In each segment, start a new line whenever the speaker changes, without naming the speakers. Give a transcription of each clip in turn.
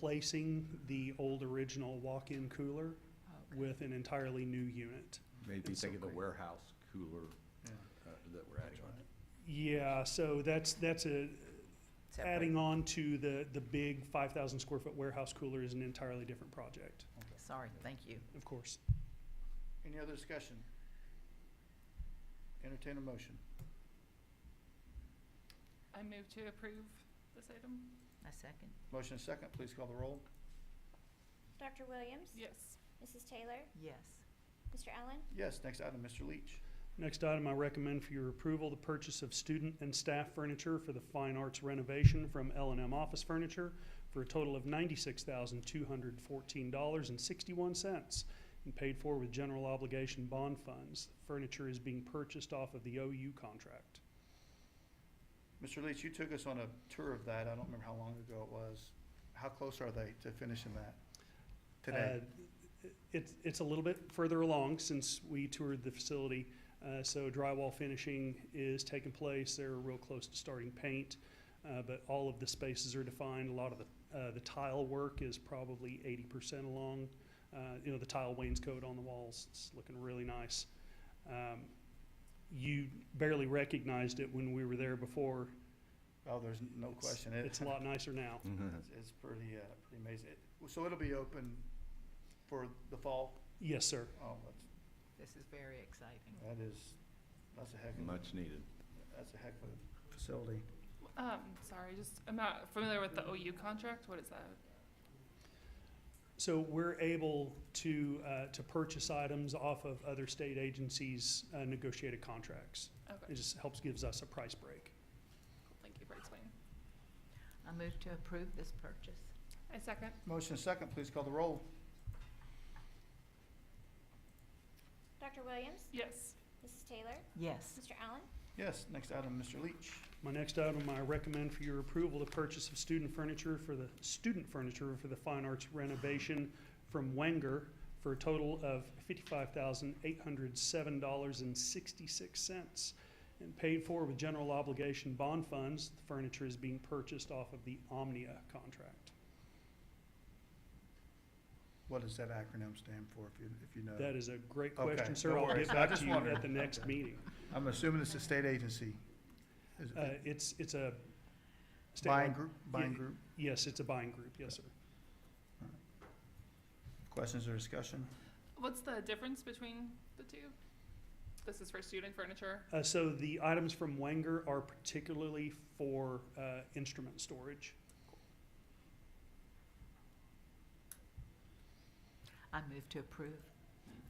replacing the old original walk-in cooler
Okay.
with an entirely new unit.
Maybe
It's so
think of the
great.
warehouse cooler
Yeah.
uh, that we're adding on.
Yeah, so that's, that's a,
Separate.
adding on to the, the big five thousand square foot warehouse cooler is an entirely different project,
Sorry, thank you.
of course.
Any other discussion? Entertain a motion.
I move to approve this item.
A second?
Motion and second, please call the roll.
Dr. Williams?
Yes.
Mrs. Taylor?
Yes.
Mr. Allen?
Yes, next item, Mr. Leach.
Next item, I recommend for your approval, the purchase of student and staff furniture for the fine arts renovation from L and M Office Furniture for a total of ninety-six thousand two hundred fourteen dollars and sixty-one cents and paid for with general obligation bond funds. Furniture is being purchased off of the OU contract.
Mr. Leach, you took us on a tour of that. I don't remember how long ago it was. How close are they to finishing that? Today?
Uh, It's, it's a little bit further along since we toured the facility, uh, so drywall finishing is taking place, they're real close to starting paint. Uh, but all of the spaces are defined, a lot of the, uh, the tile work is probably eighty percent along. Uh, you know, the tile wainscot on the walls, it's looking really nice. Um, you barely recognized it when we were there before.
Oh, there's no
It's-
question. It-
It's a lot nicer now.
It's it's pretty, uh, pretty amazing. It- So it'll be open for the fall?
Yes, sir.
Oh, that's,
This is very exciting.
that is, that's a heck of, a-
Much needed.
that's a heck of a facility.
Um, sorry, just, I'm not familiar with the OU contract. What is that?
So we're able to, uh, to purchase items off of other state agencies' uh, negotiated contracts. It
Okay,
just helps, gives us a price break.
thank you for explaining.
I move to approve this purchase.
I second.
Motion and second, please call the roll.
Dr. Williams?
Yes.
Mrs. Taylor?
Yes.
Mr. Allen?
Yes, next item, Mr. Leach.
My next item, I recommend for your approval the purchase of student furniture for the, student furniture for the fine arts renovation from Wenger for a total of fifty-five thousand eight hundred seven dollars and sixty-six cents and paid for with general obligation bond funds. The furniture is being purchased off of the Omnia contract.
What does that acronym stand for, if you, if you know?
That is a great
Okay,
question,
no
sir. I'll
worries.
get
I
back
just
to you
wondered.
at the next meeting.
I'm assuming it's a state agency. Is it
Uh, it's, it's a.
Buying
statewide-
group, buying
yeah.
group.
Yes, it's a buying group, yes, sir.
Questions or discussion?
What's the difference between the two? This is for student furniture.
Uh, so the items from Wenger are particularly for, uh, instrument storage.
I move to approve.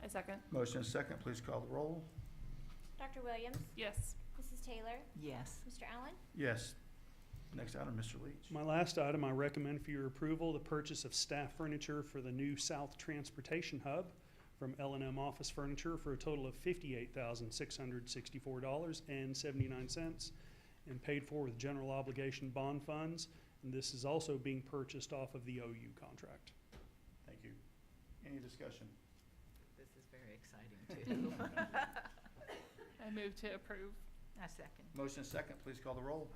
I second.
Motion is second, please call the roll.
Dr. Williams?
Yes.
Mrs. Taylor?
Yes.
Mr. Allen?
Yes. Next item, Mr. Leach.
My last item, I recommend for your approval, the purchase of staff furniture for the new South Transportation Hub from L and M Office Furniture for a total of fifty-eight thousand, six hundred sixty-four dollars and seventy-nine cents and paid for with general obligation bond funds. And this is also being purchased off of the OU contract.
Thank you. Any discussion?
This is very exciting too.
I move to approve.
I second.
Motion is second, please call the roll.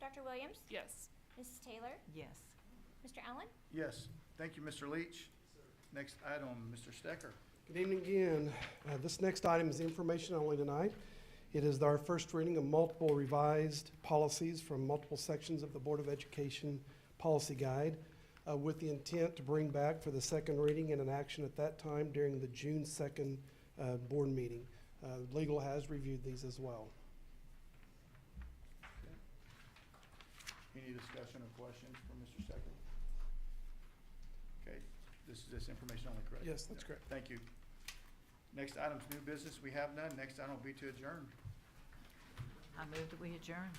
Dr. Williams?
Yes.
Mrs. Taylor?
Yes.
Mr. Allen?
Yes. Thank you, Mr. Leach. Next item, Mr. Stecker.
Good evening again. Uh, This next item is information only tonight. It is our first reading of multiple revised policies from multiple sections of the Board of Education Policy Guide uh, with the intent to bring back for the second reading and an action at that time during the June 2nd uh, board meeting. Uh, Legal has reviewed these as well.
Any discussion or questions for Mr. Stecker? Okay, this is just information only, correct?
Yes, that's correct.
Thank you. Next item's new business. We have none. Next item will be to adjourn.
I move that we adjourn.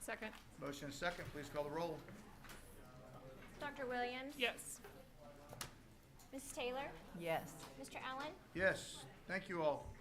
Second.
Motion is second, please call the roll.
Dr. Williams?
Yes.
Mrs. Taylor?
Yes.
Mr. Allen?
Yes, thank you all.